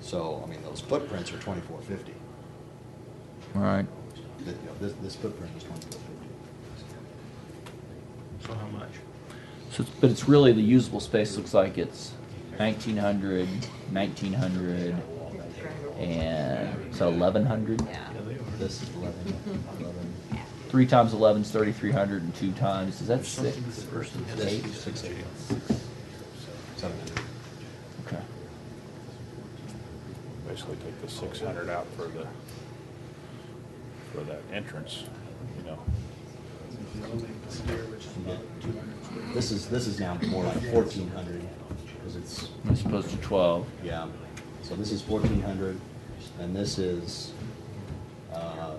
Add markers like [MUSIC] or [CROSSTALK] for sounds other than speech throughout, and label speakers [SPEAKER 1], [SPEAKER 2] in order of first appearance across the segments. [SPEAKER 1] So, I mean, those footprints are twenty-four fifty.
[SPEAKER 2] All right.
[SPEAKER 1] This, this footprint is twenty-four fifty.
[SPEAKER 3] So how much?
[SPEAKER 2] So, it's- but it's really the usable space looks like it's 1900, 1900, and so 1100.
[SPEAKER 4] Yeah.
[SPEAKER 3] Yeah, they are.
[SPEAKER 1] This is eleven, eleven.
[SPEAKER 2] Three times 11 is 3300, and two times is that
[SPEAKER 3] There's something
[SPEAKER 2] six?
[SPEAKER 3] that the person has
[SPEAKER 1] This
[SPEAKER 3] to
[SPEAKER 2] Eight?
[SPEAKER 3] do.
[SPEAKER 1] is six eighty. Seven hundred.
[SPEAKER 2] Okay.
[SPEAKER 5] basically take the six hundred out for the, for that entrance, you know.
[SPEAKER 1] This is, this is now more like fourteen hundred, because it's,
[SPEAKER 2] As opposed to 12.
[SPEAKER 1] yeah, so this is fourteen hundred, and this is, uh,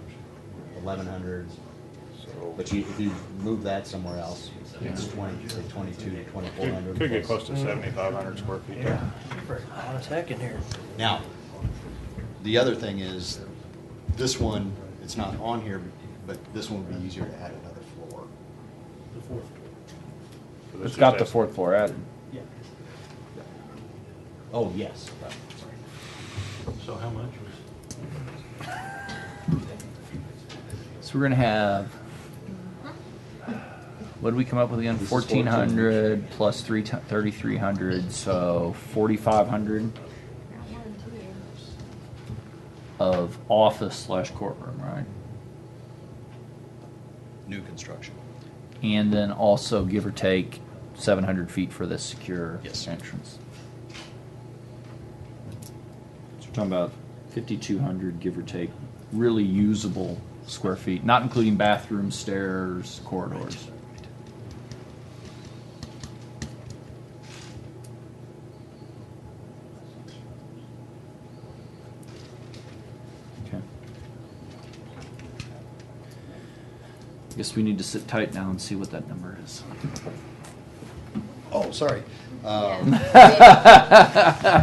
[SPEAKER 1] eleven hundred.
[SPEAKER 5] So-
[SPEAKER 1] But you, if you move that somewhere else, it's twenty, say twenty-two, twenty-four
[SPEAKER 5] Could
[SPEAKER 1] hundred.
[SPEAKER 5] could get close to seventy-five hundred square feet there.
[SPEAKER 3] Hot as heck in here.
[SPEAKER 1] Now, the other thing is, this one, it's not on here, but this one would be easier to add another floor.
[SPEAKER 3] The fourth.
[SPEAKER 5] So this
[SPEAKER 2] It's got
[SPEAKER 5] just
[SPEAKER 2] the
[SPEAKER 5] has-
[SPEAKER 2] fourth floor added.
[SPEAKER 3] Yeah.
[SPEAKER 1] Oh, yes.
[SPEAKER 3] So how much?
[SPEAKER 2] So we're gonna have. What did we come up with again?
[SPEAKER 1] This is
[SPEAKER 2] Fourteen hundred plus three thirty-three hundred, so forty-five hundred of office slash courtroom, right?
[SPEAKER 1] New construction.
[SPEAKER 2] And then also give or take seven hundred feet for this secure
[SPEAKER 1] Yes.
[SPEAKER 2] entrance. So we're talking about fifty-two hundred, give or take, really usable square feet, not including bathrooms, stairs, corridors. Okay. Guess we need to sit tight now and see what that number is.
[SPEAKER 1] Oh, sorry. Um,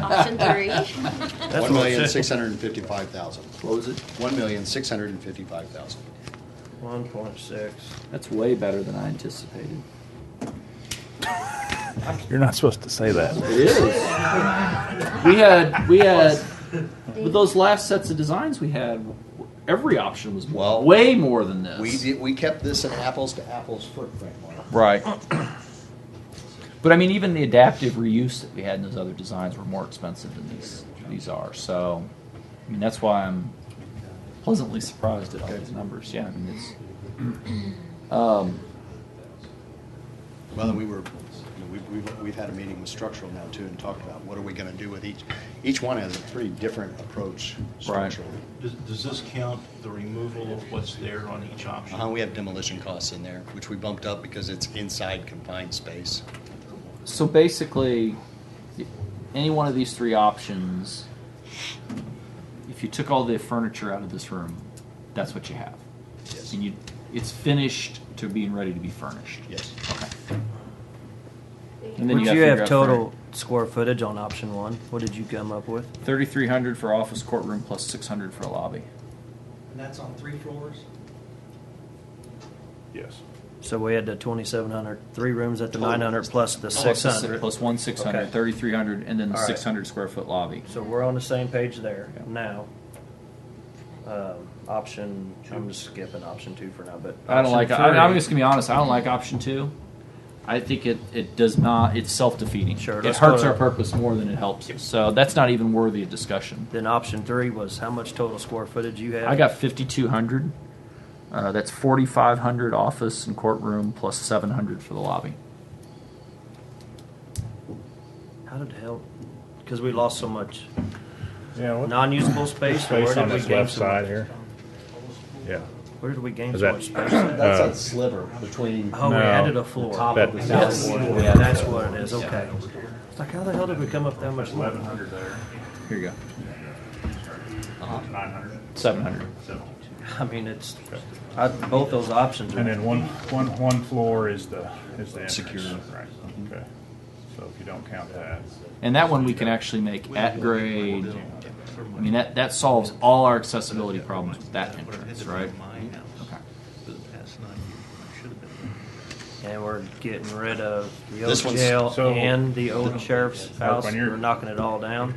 [SPEAKER 4] Option
[SPEAKER 3] [LAUGHS]
[SPEAKER 4] three.
[SPEAKER 3] That's
[SPEAKER 2] [LAUGHS]
[SPEAKER 1] One
[SPEAKER 3] what
[SPEAKER 1] million,
[SPEAKER 3] it said.
[SPEAKER 1] six hundred and fifty-five thousand. What was it? One million, six hundred and fifty-five thousand.
[SPEAKER 3] One point six.
[SPEAKER 2] That's way better than I anticipated.
[SPEAKER 5] You're not supposed to say that.
[SPEAKER 2] It is. we had we had with those last sets of designs we had, every option was
[SPEAKER 1] Well,
[SPEAKER 2] way more than this.
[SPEAKER 1] We did, we kept this an apples-to-apples footprint model.
[SPEAKER 2] Right. [CLEARS THROAT] But I mean, even the adaptive reuse that we had in those other designs were more expensive than these these are. So, I mean, that's why I'm pleasantly surprised at all these numbers. Yeah, I mean, it's. [CLEARS THROAT] Um,
[SPEAKER 1] Well, then we were, you know, we've, we've, we've had a meeting with structural now too and talked about what are we gonna do with each. Each one has a pretty different approach structurally.
[SPEAKER 3] Does, does this count the removal of what's there on each option?
[SPEAKER 1] Uh, we have demolition costs in there, which we bumped up because it's inside confined space.
[SPEAKER 2] so basically, any one of these three options, if you took all the furniture out of this room, that's what you have.
[SPEAKER 1] Yes.
[SPEAKER 2] And you, it's finished to being ready to be furnished.
[SPEAKER 1] Yes.
[SPEAKER 2] Okay. And then
[SPEAKER 6] Would
[SPEAKER 2] gotta
[SPEAKER 6] you
[SPEAKER 2] figure
[SPEAKER 6] have
[SPEAKER 2] out
[SPEAKER 6] total
[SPEAKER 2] furniture.
[SPEAKER 6] square footage on option one? What did you come up with?
[SPEAKER 2] 3,300 for office courtroom plus 600 for lobby.
[SPEAKER 7] And that's on three floors?
[SPEAKER 5] Yes.
[SPEAKER 6] So we had the 2,700, three rooms at the 900 plus
[SPEAKER 2] Plus
[SPEAKER 6] the
[SPEAKER 2] the si-
[SPEAKER 6] 600.
[SPEAKER 2] Oh, Plus one 600,
[SPEAKER 6] Okay.
[SPEAKER 2] 3,300, and then the
[SPEAKER 6] All right.
[SPEAKER 2] 600 square foot lobby.
[SPEAKER 6] So we're on the same page there
[SPEAKER 2] Yeah.
[SPEAKER 6] now. Um, option, I'm just skipping option two for now, but
[SPEAKER 2] I don't like.
[SPEAKER 6] option
[SPEAKER 2] I, I'm
[SPEAKER 6] three-
[SPEAKER 2] just gonna be honest. I don't like option two. I think it, it does not. It's self defeating.
[SPEAKER 6] Sure,
[SPEAKER 2] it
[SPEAKER 6] let's
[SPEAKER 2] hurts
[SPEAKER 6] go
[SPEAKER 2] our
[SPEAKER 6] to-
[SPEAKER 2] purpose more than it helps. us. So that's not even worthy of discussion.
[SPEAKER 6] Then option three was how much total square footage you had?
[SPEAKER 2] I got 5,200. Uh, that's 4,500 office and courtroom plus 700 for the lobby.
[SPEAKER 6] How did the hell? Because we lost so much
[SPEAKER 5] Yeah. what-
[SPEAKER 6] non-usable space. or
[SPEAKER 5] Space
[SPEAKER 6] where
[SPEAKER 5] on
[SPEAKER 6] did we
[SPEAKER 5] this
[SPEAKER 6] gain
[SPEAKER 5] left
[SPEAKER 6] so much?
[SPEAKER 5] side here. Yeah.
[SPEAKER 6] Where did we gain
[SPEAKER 5] Is
[SPEAKER 6] so
[SPEAKER 5] that-
[SPEAKER 6] much space? at?
[SPEAKER 1] That's
[SPEAKER 5] Uh,
[SPEAKER 1] that sliver between.
[SPEAKER 6] Oh, we
[SPEAKER 5] No.
[SPEAKER 6] added a floor.
[SPEAKER 1] Top
[SPEAKER 5] of the
[SPEAKER 6] That's-
[SPEAKER 1] salad board.
[SPEAKER 6] Yeah, that's what it is, okay. It's like, how the hell did we come up that much?
[SPEAKER 5] Eleven hundred there, Uh-huh.
[SPEAKER 2] Here you go.
[SPEAKER 5] nine hundred.
[SPEAKER 2] 700.
[SPEAKER 6] I mean, it's, I, both those options
[SPEAKER 5] And
[SPEAKER 6] are,
[SPEAKER 5] then one, one, one floor is the, is the entrance.
[SPEAKER 1] Secure.
[SPEAKER 5] Right, okay. So if you don't count that.
[SPEAKER 2] And that one we can actually make at grade. I mean, that, that solves all our accessibility problems with that entrance, right? Okay.
[SPEAKER 6] and we're getting rid of the
[SPEAKER 1] This
[SPEAKER 6] old
[SPEAKER 1] one's-
[SPEAKER 6] jail
[SPEAKER 5] so-
[SPEAKER 6] and the old sheriff's
[SPEAKER 5] Mark,
[SPEAKER 6] house.
[SPEAKER 5] when you're-
[SPEAKER 6] We're knocking it all down.